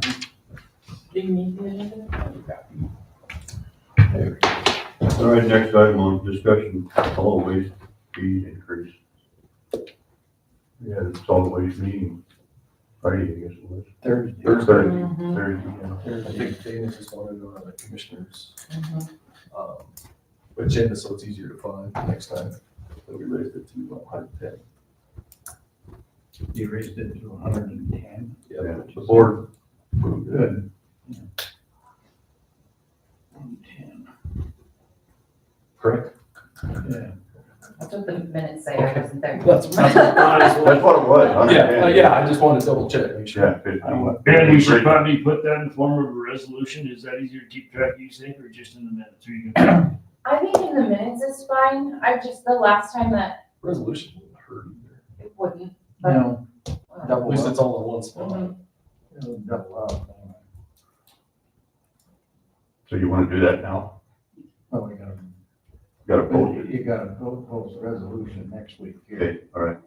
Didn't you need the agenda? All right, next item on discussion, solid waste fee increase. We had a solid waste meeting Friday, I guess it was. Thursday. Thursday. Mhm. Thursday, yeah. I think Dana just wanted one of the commissioners, Mm-hmm. um, agenda, so it's easier to find next time. But we raised it to one hundred You raised it to hundred and ten. Yeah, and the board approved it. Correct? Yeah. That's what the minutes say, I wasn't there. That's- That's what it was. Yeah, uh, yeah, I just wanted to double check, make sure. Yeah, fifty. And we should probably put that in the form of a resolution. Is that easier to keep track, you think, or just in the minutes? Or you can- I think in the minutes is fine, I just, the last time that Resolution wouldn't hurt either. it wouldn't. No, uh, At double least up, it's all in one Mm-hmm. spot. it'll double up. So you wanna do that now? Oh, we gotta, Gotta post you it. you gotta po- post a resolution next week here. Okay, all right.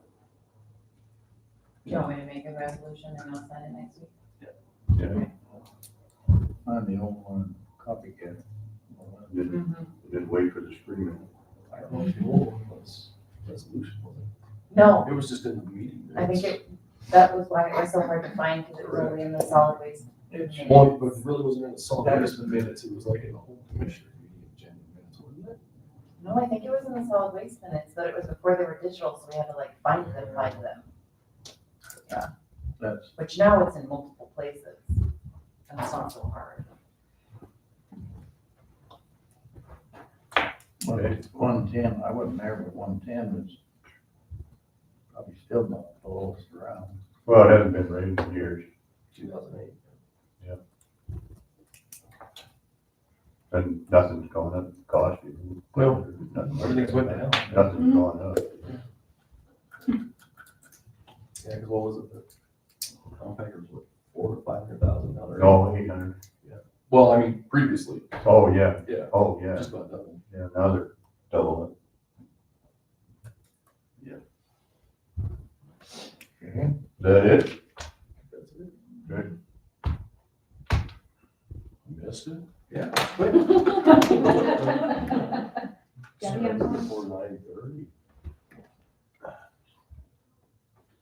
You want me to make a resolution and I'll send it next week? I'm the old one, copycat. Then, then wait for the screening. I don't know if the old one was resolution. was it? No, It was just in the meeting. I think it, that was why it was so hard to find, because it was only in the solid waste. minutes. Well, but it really wasn't in the solid That waste minutes, it was like in the whole commissioner meeting agenda minutes, wasn't it? No, I think it was in the solid waste minutes, but it was before they were digital, so we had to like find them, find them, That's, which now it's in multiple places. And it's not so hard. Okay. one ten, I wasn't there, but one ten is probably still not the lowest around. Well, it hasn't been raised in years. Two thousand eight. And nothing's going up, cost. you. Well, Nothing. everything's went down. Nothing's going up. Yeah, because what was it? The compactor's what, four to five hundred thousand dollars? Oh, eight hundred. Well, I mean, previously, Oh, yeah. Yeah. Oh, yeah. just about double. Yeah, now they're double it. Okay. Is that it? That's it. Good. You Missed it? Yeah. Yeah, we have- Before nine thirty.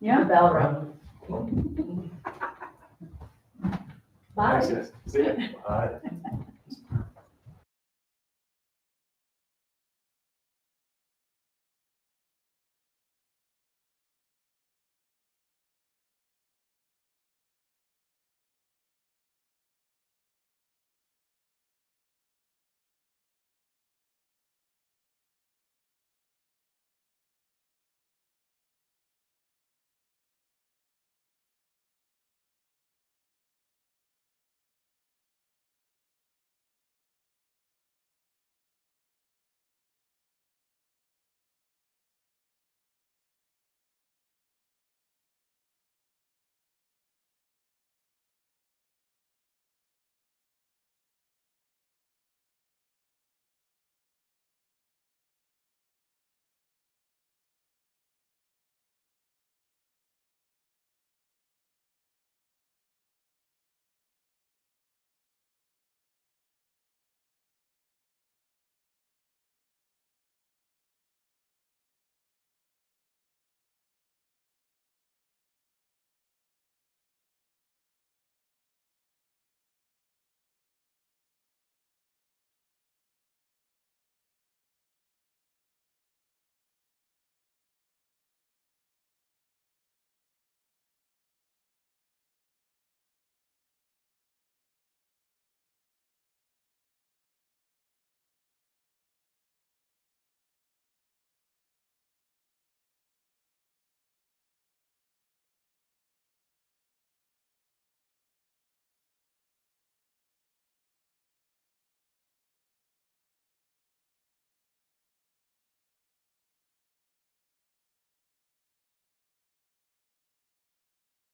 The bell rung. Thanks, guys. See ya. Bye.